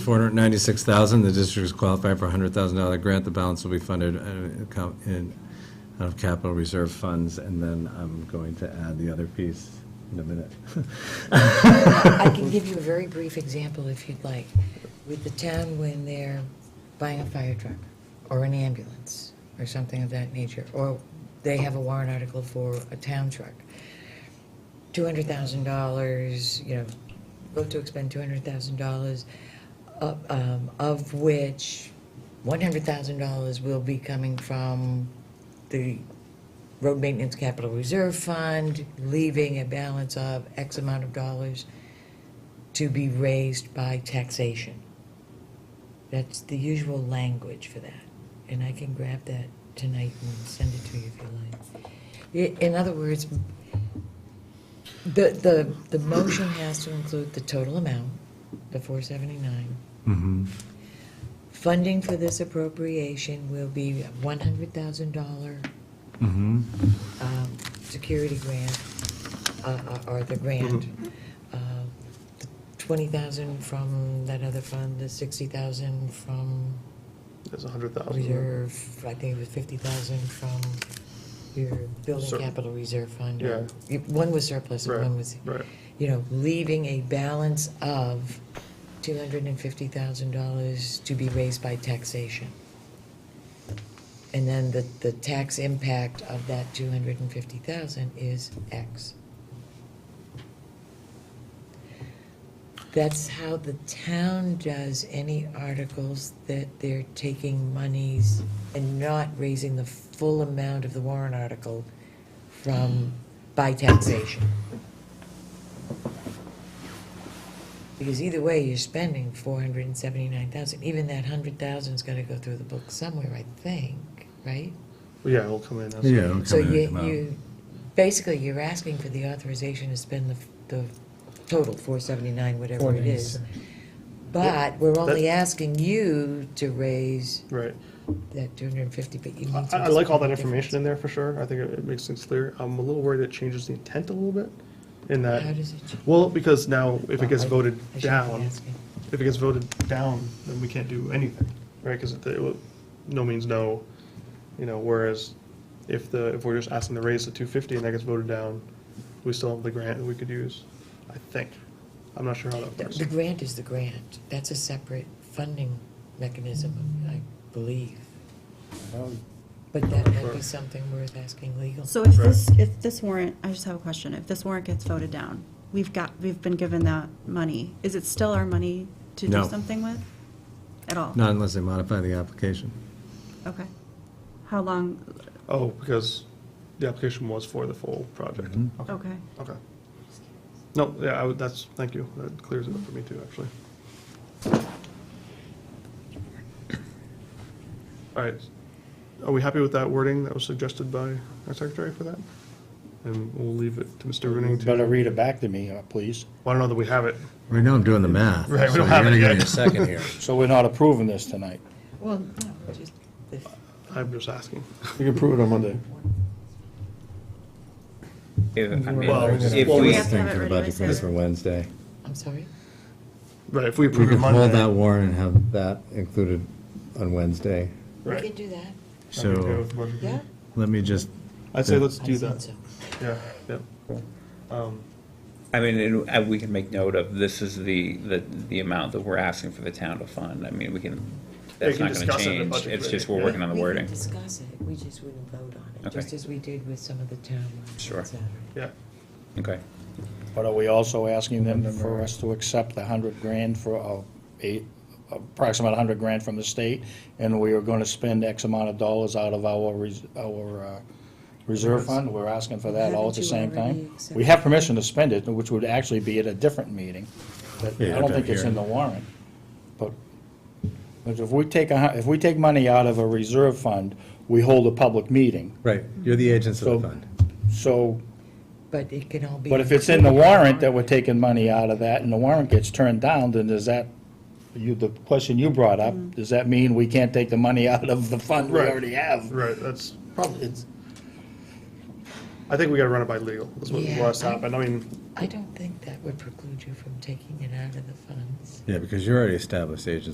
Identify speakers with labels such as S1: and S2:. S1: 496,000, the district is qualified for a $100,000 grant. The balance will be funded uh, co- in- out of capital reserve funds, and then I'm going to add the other piece in a minute.
S2: I can give you a very brief example if you'd like. With the town, when they're buying a fire truck or an ambulance or something of that nature, or they have a warrant article for a town truck, $200,000, you know, vote to expend $200,000, uh, um, of which $100,000 will be coming from the road maintenance capital reserve fund, leaving a balance of X amount of dollars to be raised by taxation. That's the usual language for that, and I can grab that tonight and send it to you if you like. I- In other words, the, the, the motion has to include the total amount, the four seventy-nine.
S1: Mm-hmm.
S2: Funding for this appropriation will be one hundred thousand dollar
S1: Mm-hmm.
S2: um, security grant, uh, uh, or the grant,
S3: Mm-hmm.
S2: uh, the 20,000 from that other fund, the 60,000 from
S3: There's a hundred thousand.
S2: reserve, I think it was 50,000 from your building
S3: Sur-
S2: capital reserve fund.
S3: Yeah.
S2: You- One was surplus, and
S3: Right,
S2: one was,
S3: right.
S2: you know, leaving a balance of $250,000 to be raised by taxation. And then the, the tax impact of that 250,000 is X. That's how the town does any articles that they're taking monies and not raising the full amount of the warrant article from, by taxation. Because either way, you're spending four hundred and seventy-nine thousand, even that hundred thousand's gotta go through the book somewhere, I think, right?
S3: Yeah, it'll come in. as-
S1: Yeah.
S2: So you, you, basically, you're asking for the authorization to spend the, the total, four seventy-nine, whatever it is. But we're only asking you to raise
S3: Right.
S2: that two hundred and fifty, but you
S3: I,
S2: need to.
S3: I like all
S2: explain the
S3: that information in there for sure. I think it, it makes things clear. I'm a little worried it changes the intent a little bit
S2: difference.
S3: in that.
S2: How does it? change?
S3: Well, because now if it gets
S2: I-
S3: voted
S2: I shouldn't be
S3: down,
S2: asking.
S3: if it gets voted down, then we can't do anything, right? Because no means no, you know, whereas if the, if we're just asking to raise the two fifty and that gets voted down, we still have the grant that we could use, I think. I'm not sure how that
S2: The
S3: works.
S2: the grant is the grant. That's a separate funding mechanism, I believe. But that might be something worth asking legal.
S4: So if this, if this warrant, I just have a question, if this warrant gets voted down, we've got, we've been given that money, is it still our money to do
S1: No.
S4: something with? At all?
S1: Not unless they modify the application.
S4: Okay. How long,
S3: Oh, because the application was for the full project.
S1: Mm-hmm.
S3: Okay.
S4: okay,
S3: Okay. No, yeah, I would, that's, thank you. That clears it up for me too, actually. All right. Are we happy with that wording that was suggested by our secretary for that? And we'll leave it to Mr. Rooney to,
S5: Better read it back to me, uh, please.
S3: well, I don't know that we have it.
S1: Right now, I'm doing the math.
S3: Right, we don't have it yet.
S1: So you're going to give me a second here.
S5: So we're not approving this tonight.
S2: Well, no, just, if-
S3: I'm just asking.
S5: You can approve it on Monday.
S6: If, I mean,
S3: Well,
S6: if
S3: well,
S6: we,
S4: have to have it
S1: Thinking about
S4: ready
S1: the
S4: by
S1: for Wednesday.
S2: I'm sorry?
S3: Right, if we
S1: We
S3: approve it
S1: could hold that
S3: Monday.
S1: warrant and have that included on Wednesday.
S2: We
S3: Right.
S2: can do that,
S3: I'm okay
S1: So
S3: with what you-
S2: yeah?
S1: let me just,
S3: I'd say let's
S2: I
S3: do
S2: think
S3: that.
S2: so.
S3: Yeah, yeah. Um,
S6: I mean, and, uh, we can make note of, this is the, the, the amount that we're asking for the town to fund. I mean, we can, that's
S3: can
S6: not gonna
S3: discuss it at
S6: change.
S3: budget
S6: It's
S3: committee,
S6: just we're
S3: yeah.
S6: working on the
S2: We
S6: wording.
S2: can discuss it, we just wouldn't vote on it,
S6: Okay.
S2: just as we did with some of the town ones, et
S6: Sure.
S2: cetera.
S3: Yeah,
S6: Okay.
S5: But are we also asking them for us to accept the hundred grand for, uh, eight, approximate hundred grand from the state? And we are gonna spend X amount of dollars out of our, res- our, uh, reserve fund? We're asking for that all at the same
S2: Haven't you already
S5: time? We
S2: accepted
S5: have permission to spend it, which would actually be at a different meeting. But
S1: Yeah,
S5: I don't think
S1: down
S5: it's
S1: here.
S5: in the warrant. But but if we take, a hu- if we take money out of a reserve fund, we hold a public meeting.
S1: right, you're the agents
S5: So-
S1: of the fund.
S5: So
S2: But it can all be.
S5: But if it's in the warrant that we're taking money out of that, and the warrant gets turned down, then does that, you, the question you brought up, does that mean we can't take the money out of the fund we
S3: Right.
S5: already have?
S3: right, that's,
S5: Probably, it's,
S3: I think we gotta run it by legal, that's what,
S2: Yeah,
S3: where I stop,
S2: I-
S3: and I mean,
S2: I don't think that would preclude you from taking it out of the funds.
S1: Yeah, because you already established agency